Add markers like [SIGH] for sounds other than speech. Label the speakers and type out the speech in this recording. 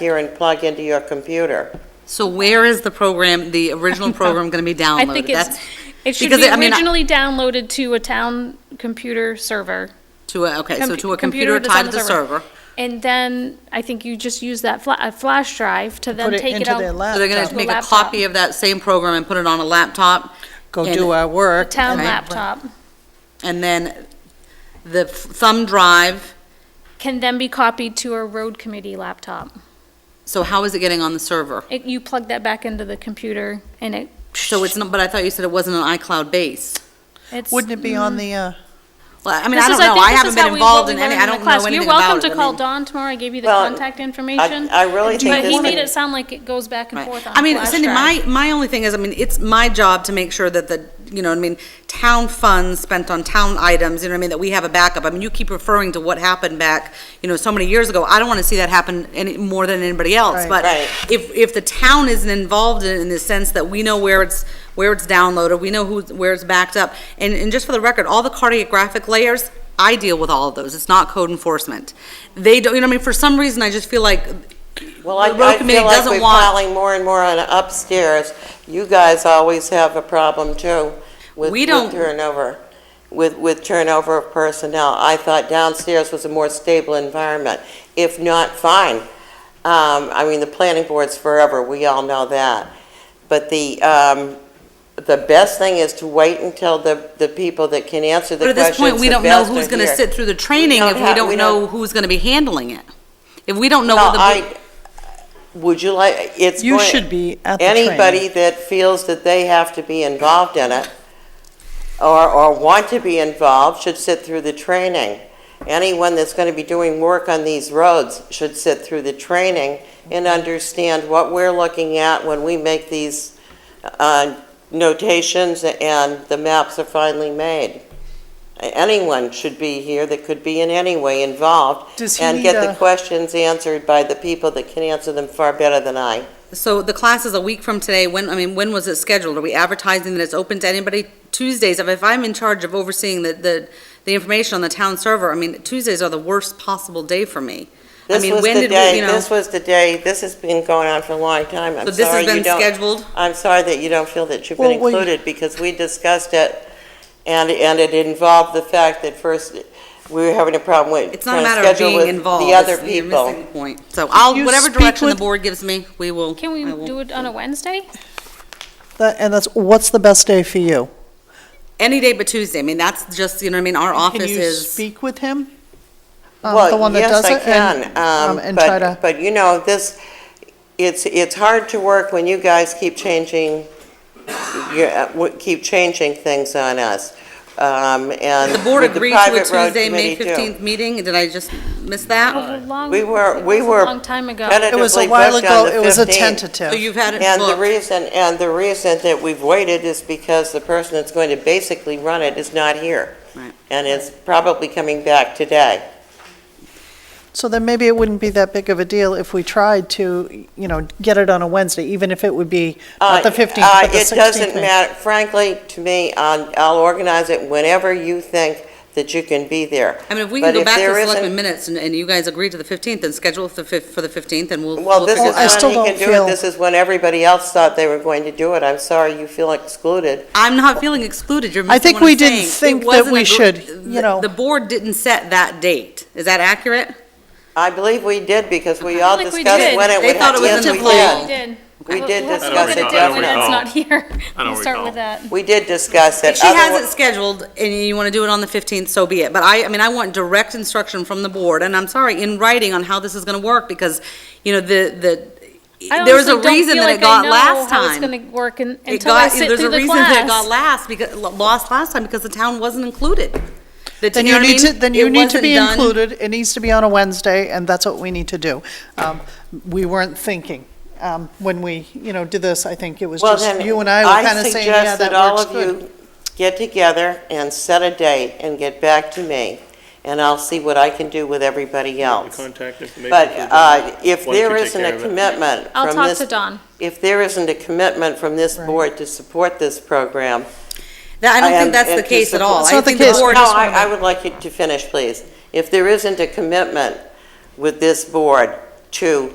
Speaker 1: here and plug into your computer.
Speaker 2: So where is the program, the
Speaker 3: [LAUGHS]
Speaker 2: original program going to be
Speaker 3: I
Speaker 2: downloaded?
Speaker 3: think it's,
Speaker 2: That's
Speaker 3: it should
Speaker 2: because
Speaker 3: be
Speaker 2: it- I mean, I-
Speaker 3: originally downloaded to a town computer server.
Speaker 2: To a, okay, so
Speaker 3: Com-
Speaker 2: to a computer
Speaker 3: that's on
Speaker 2: tied to the server.
Speaker 3: And then I think you just use that fla- a flash drive to then
Speaker 4: Put it
Speaker 3: take it
Speaker 4: into their
Speaker 3: out.
Speaker 2: So they're going
Speaker 4: laptop,
Speaker 2: to make a
Speaker 3: Uh, laptop.
Speaker 2: copy of that same program and put it on a laptop,
Speaker 4: go
Speaker 2: and-
Speaker 4: do our work.
Speaker 3: Town
Speaker 4: and-
Speaker 3: laptop
Speaker 2: and then the thumb drive,
Speaker 3: can then be copied to a road committee laptop.
Speaker 2: so how is it getting on the server?
Speaker 3: It, you plug that back into the computer and it,
Speaker 2: So it's not, but I thought you said it wasn't an iCloud base.
Speaker 3: it's.
Speaker 4: Wouldn't it be on the, uh,
Speaker 1: Mm.
Speaker 2: Well, I mean,
Speaker 3: This
Speaker 2: I don't
Speaker 3: is-
Speaker 2: know,
Speaker 3: think
Speaker 2: I
Speaker 3: this
Speaker 2: haven't
Speaker 3: is
Speaker 2: been
Speaker 3: how we- what
Speaker 2: involved
Speaker 3: we
Speaker 2: in
Speaker 3: learned
Speaker 2: any,
Speaker 3: the
Speaker 2: I don't
Speaker 3: class.
Speaker 2: know anything
Speaker 3: You're welcome
Speaker 2: about it.
Speaker 3: to
Speaker 2: I
Speaker 3: call
Speaker 2: mean-
Speaker 3: Don tomorrow, I gave you the
Speaker 1: Well,
Speaker 3: contact information.
Speaker 1: I, I really think
Speaker 3: But
Speaker 1: this
Speaker 3: he made it
Speaker 1: is,
Speaker 3: sound like it goes back and
Speaker 2: Right.
Speaker 3: forth on
Speaker 2: I mean,
Speaker 3: flash
Speaker 2: Cindy,
Speaker 3: drive.
Speaker 2: my, my only thing is, I mean, it's my job to make sure that the, you know, what I mean, town funds spent on town items, you know what I mean, that we have a backup. I mean, you keep referring to what happened back, you know, so many years ago. I don't want to see that happen any, more than anybody else.
Speaker 4: Right.
Speaker 2: But
Speaker 1: Right.
Speaker 2: if, if the town isn't involved in, in the sense that we know where it's, where it's downloaded, we know who, where it's backed up. And, and just for the record, all the cartographic layers, I deal with all of those. It's not code enforcement. They don't, you know, what I mean, for some reason, I just feel like
Speaker 1: well, I,
Speaker 2: the road
Speaker 1: I
Speaker 2: committee
Speaker 1: feel like
Speaker 2: doesn't
Speaker 1: we're
Speaker 2: want-
Speaker 1: piling more and more on upstairs. You guys always have a problem too with
Speaker 2: We
Speaker 1: with
Speaker 2: don't-
Speaker 1: turnover, with, with turnover of personnel. I thought downstairs was a more stable environment. If not, fine. Um, I mean, the planning board's forever, we all know that. But the, um, the best thing is to wait until the, the people that can answer the
Speaker 2: But at this
Speaker 1: questions
Speaker 2: point, we
Speaker 1: the
Speaker 2: don't know
Speaker 1: best
Speaker 2: who's
Speaker 1: are
Speaker 2: gonna
Speaker 1: here.
Speaker 2: sit through the training
Speaker 1: We
Speaker 2: if we
Speaker 1: have-
Speaker 2: don't know who's gonna be handling it. If we don't know
Speaker 1: No,
Speaker 2: what the,
Speaker 1: I, would you like, it's.
Speaker 4: you
Speaker 1: going-
Speaker 4: should be at the training.
Speaker 1: Anybody that feels that they have to be involved in it or, or want to be involved should sit through the training. Anyone that's going to be doing work on these roads should sit through the training and understand what we're looking at when we make these uh, notations and the maps are finally made. Anyone should be here that could be in any way involved
Speaker 4: Does he
Speaker 1: and
Speaker 4: need
Speaker 1: get the
Speaker 4: a-
Speaker 1: questions answered by the people that can answer them far better than I.
Speaker 2: so the class is a week from today, when, I mean, when was it scheduled? Are we advertising that it's open to anybody? Tuesdays, if- if I'm in charge of overseeing the, the, the information on the town server, I mean, Tuesdays are the worst possible day for me. I
Speaker 1: This
Speaker 2: mean,
Speaker 1: was
Speaker 2: when
Speaker 1: the
Speaker 2: did we,
Speaker 1: day,
Speaker 2: you know-
Speaker 1: this was the day, this has been going on for a long time. I'm
Speaker 2: So this
Speaker 1: sorry
Speaker 2: has
Speaker 1: you
Speaker 2: been
Speaker 1: don't,
Speaker 2: scheduled?
Speaker 1: I'm sorry that you don't feel that you've been
Speaker 4: Well, we-
Speaker 1: included because we discussed it and, and it involved the fact that first, we were having a problem with.
Speaker 2: It's not a
Speaker 1: trying to
Speaker 2: matter of
Speaker 1: schedule
Speaker 2: being
Speaker 1: with
Speaker 2: involved.
Speaker 1: The other
Speaker 2: It's- you're missing
Speaker 1: people.
Speaker 2: the point. So I'll,
Speaker 4: you
Speaker 2: whatever
Speaker 4: speak
Speaker 2: direction the
Speaker 4: with-
Speaker 2: board gives me, we will.
Speaker 3: Can we
Speaker 2: I will-
Speaker 3: do it on a Wednesday?
Speaker 4: That- And that's, what's the best day for you?
Speaker 2: Any day but Tuesday. I mean, that's just, you know what I mean? Our
Speaker 4: Can
Speaker 2: office
Speaker 4: you
Speaker 2: is.
Speaker 4: speak with him? Um, the
Speaker 1: Well,
Speaker 4: one that
Speaker 1: yes,
Speaker 4: does
Speaker 1: I
Speaker 4: it, and,
Speaker 1: can, um,
Speaker 4: um, and try to-
Speaker 1: but, but you know, this, it's, it's hard to work when you guys keep changing, you, uh, w- keep changing things on us. Um, and.
Speaker 2: The board
Speaker 1: with
Speaker 2: agreed to a
Speaker 1: private road
Speaker 2: Tuesday, May
Speaker 1: committee, too.
Speaker 2: 15th meeting. Did I just miss
Speaker 4: Oh,
Speaker 2: that?
Speaker 3: It was a long-
Speaker 1: We were-
Speaker 3: it
Speaker 1: we
Speaker 3: was a
Speaker 1: were
Speaker 3: Long time ago.
Speaker 1: tentative-
Speaker 4: It was a
Speaker 1: Tentatively
Speaker 4: while
Speaker 1: booked on
Speaker 4: ago,
Speaker 1: the
Speaker 4: it was a
Speaker 1: 15th.
Speaker 2: So
Speaker 4: tentative.
Speaker 2: you've had it
Speaker 1: And the
Speaker 2: booked.
Speaker 1: reason, and the reason that we've waited is because the person that's going to basically run it is not here.
Speaker 2: Right.
Speaker 1: And is probably coming back today.
Speaker 4: So then maybe it wouldn't be that big of a deal if we tried to, you know, get it on a Wednesday, even if it would be not the
Speaker 1: Uh,
Speaker 4: 15th,
Speaker 1: uh,
Speaker 4: but the 16th.
Speaker 1: It doesn't matter, frankly, to me, I'll, I'll organize it whenever you think that you can be there.
Speaker 2: I mean, if we
Speaker 1: But
Speaker 2: can go
Speaker 1: if
Speaker 2: back to
Speaker 1: there
Speaker 2: the
Speaker 1: isn't-
Speaker 2: selectmen minutes and, and you guys agree to the 15th, then schedule the fif- for the 15th and we'll.
Speaker 1: Well, this
Speaker 4: Well,
Speaker 1: is
Speaker 4: I
Speaker 1: when
Speaker 4: still
Speaker 1: he
Speaker 4: don't
Speaker 1: can do it,
Speaker 4: feel-
Speaker 1: this is when everybody else thought they were going to do it. I'm sorry you feel excluded.
Speaker 2: I'm not feeling excluded. You're
Speaker 4: I
Speaker 2: missing
Speaker 4: think
Speaker 2: what I'm
Speaker 4: we didn't
Speaker 2: saying. It
Speaker 4: think that
Speaker 2: wasn't
Speaker 4: we
Speaker 2: agr-
Speaker 4: should, you
Speaker 2: the-
Speaker 4: know.
Speaker 2: The board didn't set that date. Is that accurate?
Speaker 1: I believe we did because we
Speaker 3: I
Speaker 1: all
Speaker 3: feel like we
Speaker 1: discussed
Speaker 3: did.
Speaker 1: when it
Speaker 2: They
Speaker 1: would
Speaker 2: thought it
Speaker 1: happen. Yes,
Speaker 2: was in
Speaker 1: we
Speaker 2: July.
Speaker 1: did.
Speaker 3: We did.
Speaker 1: We
Speaker 3: We'll-
Speaker 1: did
Speaker 3: we'll have to
Speaker 1: discuss
Speaker 3: look
Speaker 1: it,
Speaker 3: at when
Speaker 1: definitely.
Speaker 3: Ed's not here.
Speaker 5: I don't
Speaker 3: We'll start
Speaker 5: recall.
Speaker 3: with that.
Speaker 1: We did discuss it.
Speaker 2: If she has
Speaker 1: Otherwise-
Speaker 2: it scheduled and you want to do it on the 15th, so be it. But I, I mean, I want direct instruction from the board, and I'm sorry, in writing on how this is going to work, because, you know, the, the,
Speaker 3: I
Speaker 2: there was a
Speaker 3: honestly don't
Speaker 2: reason
Speaker 3: feel
Speaker 2: that
Speaker 3: like
Speaker 2: it
Speaker 3: I
Speaker 2: got
Speaker 3: know
Speaker 2: last
Speaker 3: how it's
Speaker 2: time.
Speaker 3: gonna work un-
Speaker 2: It
Speaker 3: until I
Speaker 2: got-
Speaker 3: sit
Speaker 2: there's
Speaker 3: through
Speaker 2: a
Speaker 3: the
Speaker 2: reason that it got
Speaker 3: class.
Speaker 2: last because lost last time because the town wasn't included. The-
Speaker 4: Then
Speaker 2: know
Speaker 4: you
Speaker 2: what I
Speaker 4: need to,
Speaker 2: mean?
Speaker 4: then you
Speaker 2: It
Speaker 4: need to
Speaker 2: wasn't
Speaker 4: be
Speaker 2: done.
Speaker 4: included, it needs to be on a Wednesday, and that's what we need to do. Um, We weren't thinking, um, when we, you know, did this, I think it was
Speaker 1: Well,
Speaker 4: just
Speaker 1: then,
Speaker 4: you and I were kind of saying, yeah,
Speaker 1: suggest
Speaker 4: that
Speaker 1: that all of
Speaker 4: works good.
Speaker 1: you get together and set a date and get back to me, and I'll see what I can do with everybody
Speaker 5: The
Speaker 1: else.
Speaker 5: contact information.
Speaker 1: But
Speaker 5: for
Speaker 1: uh, if
Speaker 5: Why don't you
Speaker 1: there
Speaker 5: take
Speaker 1: isn't
Speaker 5: care
Speaker 1: a
Speaker 5: of it?
Speaker 1: commitment from
Speaker 3: I'll
Speaker 1: this...
Speaker 3: talk to Don.
Speaker 1: If there isn't a commitment from this board to support this program...
Speaker 2: That- I don't
Speaker 1: am-
Speaker 2: think that's the
Speaker 1: and to
Speaker 2: case at
Speaker 1: support-
Speaker 2: all.
Speaker 4: It's
Speaker 2: I
Speaker 4: not the
Speaker 2: think
Speaker 4: case.
Speaker 2: board
Speaker 1: No,
Speaker 2: just wanna
Speaker 1: I I would like you to finish, please. If there isn't a commitment with this board to